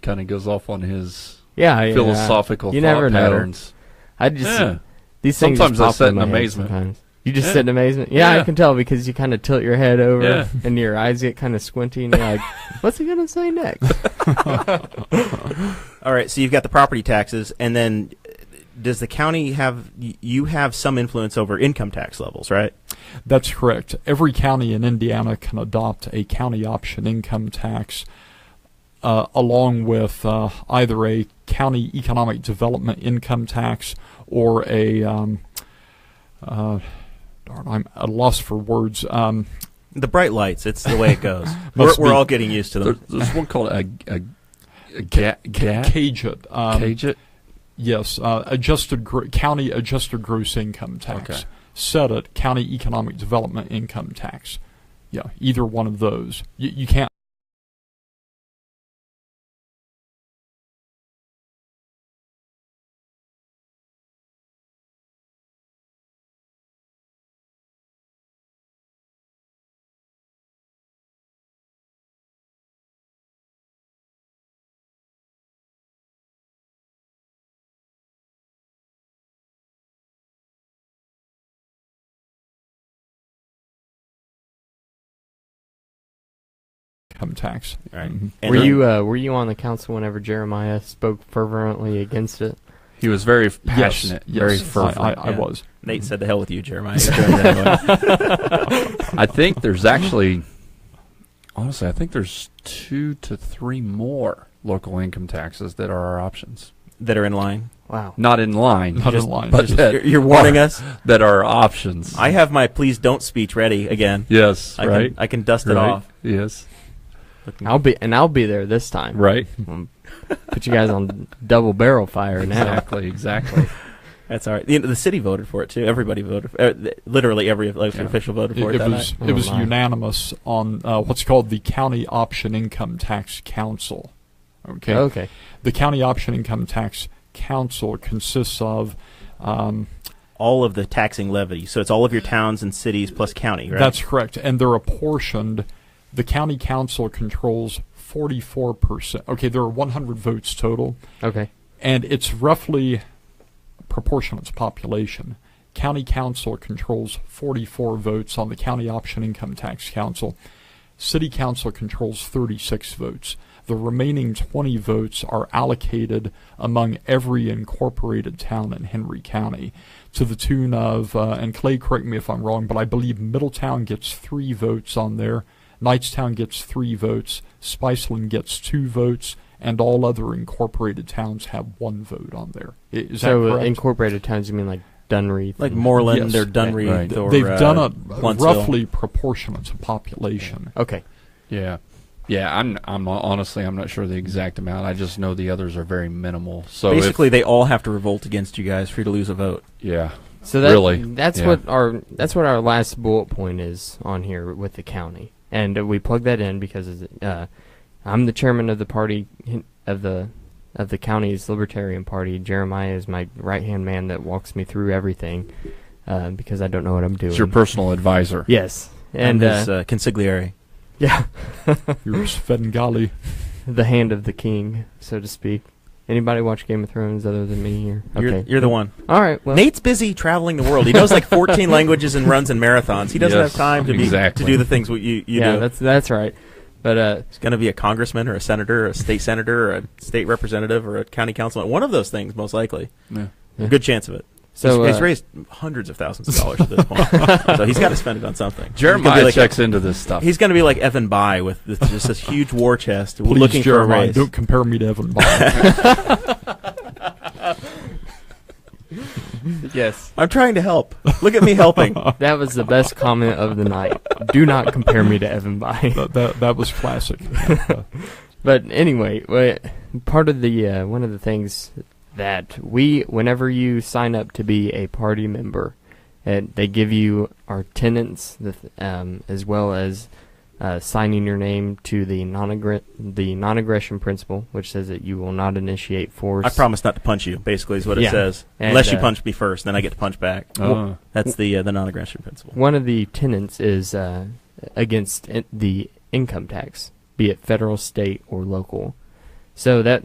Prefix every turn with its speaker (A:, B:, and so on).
A: kind of goes off on his
B: Yeah, yeah,
A: philosophical
B: you
A: thought
B: never know.
A: patterns.
B: I just
A: Yeah.
B: these things.
A: Sometimes I
B: just pop
A: sit
B: in,
A: in
B: my head
A: amazement.
B: Sometimes you just
A: Yeah.
B: sit in amazement. Yeah, I
A: Yeah.
B: can tell because you kind of tilt your head over
A: Yeah.
B: and your eyes get kind of squinty, and you're like, "What's he gonna say next?"
C: All right, so you've got the property taxes, and then uh, does the county have? y- You have some influence over income tax levels, right?
D: That's correct. Every county in Indiana can adopt a county option income tax uh, along with uh, either a county economic development income tax or a, um, uh, darn, I'm at a loss for words. Um,
C: The bright lights. It's the way it goes. we're,
D: Must
C: we're
D: be.
C: all getting used to
A: There,
C: them.
A: there's one called a, a, a ga, ga,
D: cage it. Um,
A: cage it.
D: Yes, uh, adjusted gr- county adjusted gross income tax.
A: Okay.
D: Set it county economic development income tax. Yeah, either one of those. You, you can't. Income tax.
C: Right.
D: Mhm.
C: And
B: were
C: then-
B: you uh, Were you on the council whenever Jeremiah spoke fervently against it?
A: He was very passionate,
D: yes,
A: very
D: yes, I-
A: fervent.
D: I,
A: I,
D: I
C: yeah.
D: was.
C: Nate said, "The hell with you, Jeremiah." You're doing that anyway.
A: think there's actually, honestly, I think there's two to three more local income taxes that are our options.
C: that are in line.
B: Wow.
A: Not in line,
D: Not
C: Just-
D: in line.
A: but
D: Just-
A: that,
C: You're, you're warning us.
A: that are options.
C: I have my please don't speech ready again.
A: yes,
C: I
A: right,
C: can I can dust it
A: right,
C: off.
A: Yes,
B: I'll be and I'll be there this time.
A: right.
B: Put you guys on double barrel fire now.
A: Exactly, exactly.
C: That's all right. The, the city voted for it too. Everybody voted. For, uh, th- literally every election
A: Yeah.
C: official voted for it.
D: It, it
C: that
D: was
C: night.
B: night.
D: it was
B: Oh, my.
D: unanimous on uh, what's called the County Option Income Tax Council. Okay,
C: Oh.
B: Okay.
D: the County Option Income Tax Council consists of. Um,
C: all of the taxing levy. So it's all of your towns and cities plus county, right?
D: That's correct, and they're apportioned. The county council controls forty-four percent. Okay, there are one hundred votes total,
B: Okay.
D: and it's roughly proportional to population. County council controls 44 votes on the county option income tax council. City council controls 36 votes. The remaining 20 votes are allocated among every incorporated town in Henry County to the tune of, uh, and Clay, correct me if I'm wrong, but I believe Middletown gets three votes on there, Knightstown gets three votes, Spiceland gets two votes, and all other incorporated towns have one vote on there. I- Is that
B: so uh,
D: correct?
B: incorporated towns, you mean like Dunreath?
C: like
B: and-
C: Moreland
D: Yes.
C: or Dunreath
A: Right.
C: or
D: They've
C: uh,
D: done it
C: Huntsville.
D: roughly proportionate to population.
B: Okay.
A: Yeah. Yeah, I'm. I'm honestly, I'm not sure the exact amount. I just know the others are very minimal. So if-
C: Basically, they all have to revolt against you guys for you to lose a vote.
A: yeah,
B: So that,
A: Really?
B: that's
A: Yeah.
B: what our that's what our last bullet point is on here with the county, and uh, we plug that in because uh, I'm the chairman of the party hin- of the of the county's Libertarian Party. Jeremiah is my right hand man that walks me through everything uh, because I don't know what I'm doing.
A: it's your personal advisor.
B: yes, and
C: his
B: uh,
C: uh, consigliere.
B: yeah,
D: You're Svengali.
B: the hand of the king, so to speak. Anybody watch Game of Thrones other than me here?
C: You're, you're the one.
B: All right. Well,
C: Nate's busy traveling the world. He knows like 14 languages and runs and marathons. He doesn't
A: Yes,
C: have time to be
A: exactly.
C: to do the things what you, you
B: yeah,
C: do.
B: that's that's right. But uh,
C: He's going to be a congressman or a senator or a state senator or a state representative or a county councilman. One of those things, most likely.
A: Yeah.
B: Yeah.
C: A good chance of it.
B: so
C: he's, he's
B: uh,
C: raised hundreds of thousands of dollars at this point, so he's got to spend it on something. He's gonna
A: Jeremiah
C: be like,
A: checks into this stuff.
C: He's going to be like Evan By with this, just this huge war chest,
D: Please,
C: looking for a
D: Jeremiah,
C: raise.
D: don't compare me to Evan Bond.
B: yes.
C: I'm trying to help. Look at me helping.
B: That was the best comment of the night. Do not compare me to Evan Bay.
D: that, that, that was classic. uh,
B: But anyway, wa- part of the uh, one of the things that we, whenever you sign up to be a party member, and they give you our tenants, the th- um, as well as uh, signing your name to the non the non-aggression principle, which says that you will not initiate force.
C: I promise not to punch you. Basically, is what
B: Yeah.
C: it says.
B: And,
C: Unless you
B: uh,
C: punch me first, then I get to punch back.
D: Oh.
A: Uh,
C: That's the uh, the non-aggression principle.
B: One of the tenants is uh, against in- the income tax, be it federal, state, or local. So that